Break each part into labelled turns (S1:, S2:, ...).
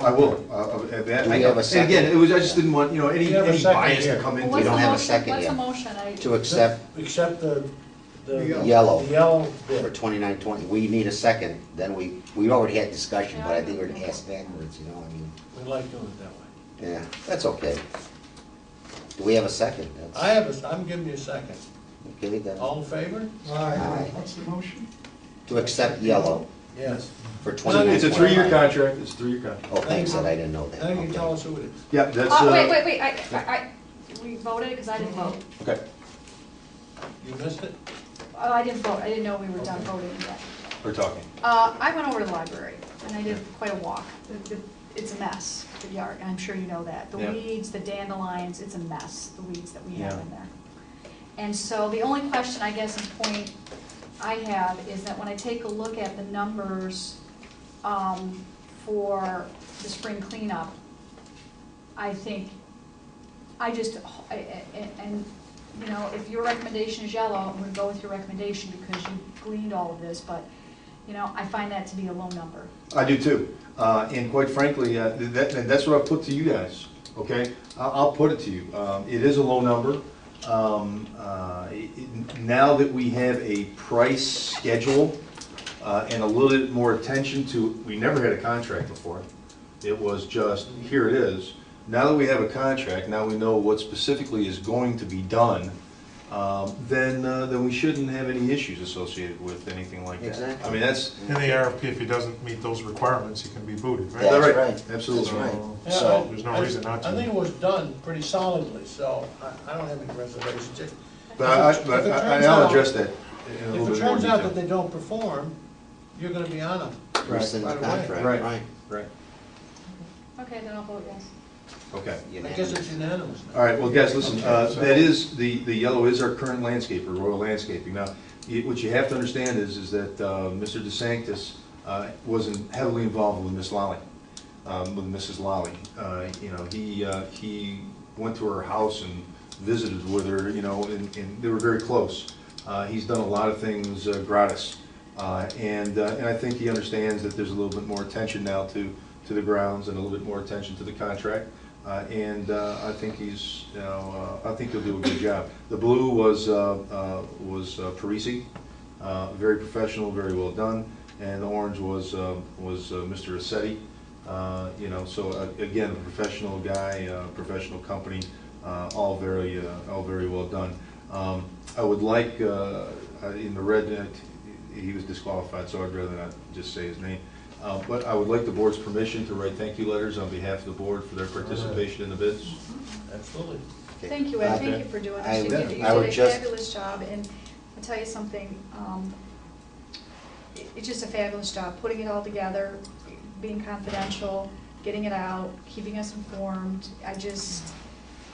S1: I will, uh, uh, that,
S2: Do
S1: I
S2: we have a
S1: know, and
S2: second?
S1: again, it was, I just didn't want, you know,
S3: We
S1: any,
S3: have a
S1: any
S3: second
S1: bias to
S3: here.
S1: come
S4: Well,
S1: into.
S4: what's
S1: it.
S4: the
S2: don't have a
S4: motion-
S2: second
S4: What's
S2: yet.
S4: the motion? I-
S2: to accept
S3: Except the, the.
S2: Yellow.
S3: The yellow
S2: for
S3: bid.
S2: twenty-nine twenty, we need a second, then we, we already had discussion, but I think we're gonna ask backwards, you know, I mean,
S3: We like doing it that way.
S2: yeah, that's okay. Do we have a second? That's-
S3: I have a, I'm giving you a second.
S2: Okay, then,
S3: All in favor?
S2: Aye.
S5: What's the motion?
S2: to accept yellow
S3: Yes.
S2: for twenty-nine twenty.
S1: It's a three-year contract, it's a three-year contract.
S2: Oh, thanks, that I didn't know that,
S3: Now you can tell
S2: okay.
S3: us who it is.
S1: Yep, that's,
S4: Oh, wait, wait,
S1: uh,
S4: wait, I, I, I- we voted, because I didn't vote.
S1: okay,
S3: You missed it?
S4: Oh, I didn't vote, I didn't know we were done voting yet.
S1: we're talking.
S4: Uh, I went over to the library, and I did quite a walk. It- it- It's a mess, the yard, and I'm sure you know that. The
S1: Yeah.
S4: weeds, the dandelions, it's a mess, the weeds that we have
S1: Yeah.
S4: in there. And so the only question, I guess, and point I have is that when I take a look at the numbers um, for the spring cleanup, I think, I just, I- I- I- and, you know, if your recommendation is yellow, I'm gonna go with your recommendation because you gleaned all of this, but, you know, I find that to be a low number.
S1: I do too. Uh, And quite frankly, uh, th- that, and that's what I put to you guys, okay? I'll, I'll put it to you. Um, It is a low number. Um, uh, it- it- Now that we have a price schedule uh, and a little bit more attention to, we never had a contract before. It was just, here it is. Now that we have a contract, now we know what specifically is going to be done, um, then, uh, then we shouldn't have any issues associated with anything like that.
S2: Exactly.
S1: I mean, that's,
S6: In the RFP, if he doesn't meet those requirements, he can be booted, right?
S2: That's
S1: They're
S2: right.
S1: Absolutely.
S2: That's right.
S6: So,
S3: Yeah,
S2: So,
S3: I-
S6: there's no
S3: I-
S6: reason not to.
S3: I think it was done pretty solidly, so I, I don't have any reservations. If-
S1: But I, I-
S3: If it
S1: but I,
S3: turns
S1: I'll
S3: out-
S1: address that in a
S3: If
S1: little
S3: it
S1: bit more
S3: turns out that
S1: detail.
S3: they don't perform, you're gonna be on them.
S2: rescind the
S3: Right, right,
S2: contract,
S1: right.
S2: right?
S1: Right,
S4: Okay, then I'll vote yes.
S1: okay.
S3: I guess
S2: Unanimous.
S3: it's unanimous now.
S1: All right, well, guys, listen, uh, that is, the, the yellow is our current landscaper, Royal Landscaping. Now, you- what you have to understand is, is that uh, Mr. DeSantis uh, was in- heavily involved with Miss Lally, um, with Mrs. Lally. Uh, You know, he, uh, he went to her house and visited with her, you know, and, and they were very close. Uh, He's done a lot of things uh, gratis. Uh, And, uh, and I think he understands that there's a little bit more attention now to, to the grounds and a little bit more attention to the contract. Uh, And uh, I think he's, you know, uh, I think he'll do a good job. The blue was, uh, uh, was uh, Parisi, uh, very professional, very well done. And the orange was, uh, was uh, Mr. Assetti. Uh, You know, so uh, again, a professional guy, uh professional company, uh, all very, uh, all very well done. Um, I would like, uh, uh, in the red, uh, he was disqualified, so I'd rather not just say his name. Uh, But I would like the board's permission to write thank you letters on behalf of the board for their participation in the bids.
S3: Absolutely.
S2: Okay.
S4: Thank you, Ed, thank
S1: Okay.
S4: you for doing
S2: I
S4: this. You
S2: would-
S4: did you
S2: I would
S4: did a
S2: just-
S4: fabulous job, and I'll tell you something, um, it- it's just a fabulous job, putting it all together, being confidential, getting it out, keeping us informed. I just,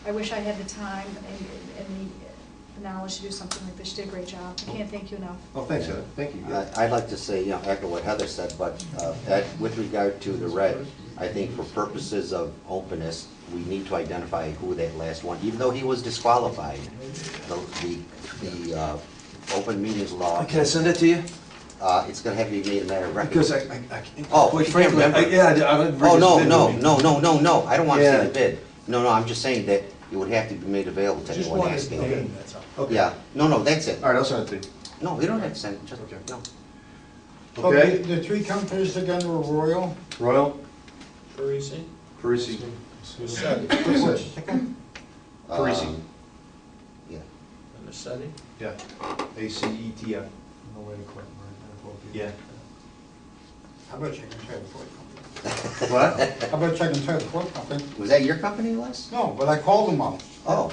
S4: I wish I had the time and- and the- the knowledge to do something like this. You did a great job. I can't thank you enough.
S1: Oh, thanks, Ed, thank you.
S2: I- I'd like to say, you know, echo what Heather said, but uh, that- with regard to the red, I think for purposes of openness, we need to identify who that last one, even though he was disqualified, the, the, the uh, open meetings law,
S1: Can I send that to you?
S2: uh, it's gonna have to be made a matter of record.
S1: Because I, I, I can't.
S2: Oh,
S1: quite
S2: you can't
S1: frankly, I-
S2: remember.
S1: Yeah, I- I. don't-
S2: Oh, no,
S1: Bridget's
S2: no,
S1: bid with me.
S2: no, no, no, no, I don't wanna see
S1: Yeah.
S2: the bid. No, no, I'm just saying that it would have to be made available to
S3: Just
S2: anyone
S3: wanted to
S2: asking.
S3: name, that's all.
S1: Okay.
S2: Yeah, no, no, that's it.
S1: All right, I'll send it to
S2: No, we don't have to send, it, just,
S1: Okay.
S2: no.
S1: you. Okay,
S5: The the three companies that got were Royal,
S1: Royal,
S3: Parisi?
S1: Parisi,
S3: Seti.
S1: Parisi. Parisi.
S2: Um, Uh, Yeah.
S3: And the Seti?
S1: yeah, A C E T I. Yeah.
S5: how about Chicken Tail Fourth Company?
S1: What?
S5: How about Chicken Tail Fourth Company?
S2: Was that your company, Les?
S5: No, but I called them out.
S2: Oh.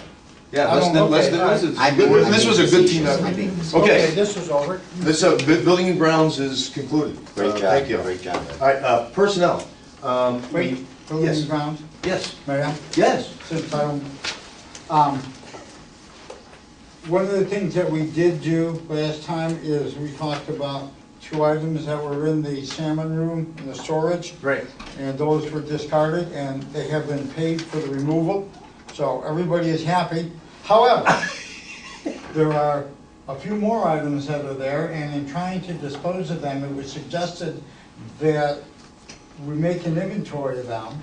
S1: Yeah,
S5: I
S1: let's,
S5: don't-
S1: do- let's,
S5: okay,
S1: do-
S5: all
S1: this
S5: right.
S1: is,
S2: I'm being- I'm
S1: this was a
S2: being
S1: good team
S2: facetious.
S1: effort.
S2: I'm being facetious.
S1: Okay.
S3: This was over.
S1: This, uh, bu- building and grounds is concluded.
S2: Great
S1: Uh,
S2: job.
S1: Thank you.
S2: Great job.
S1: All right, uh, personnel. Um, we-
S5: Wait,
S1: Yes.
S5: Building Grounds,
S1: Yes,
S5: Mayor?
S1: yes.
S5: since I don't, um, one of the things that we did do last time is we talked about two items that were in the salmon room in the storage,
S1: Right.
S5: and those were discarded, and they have been paid for the removal, so everybody is happy. However, there are a few more items that are there, and in trying to dispose of them, it was suggested that we make an inventory of them,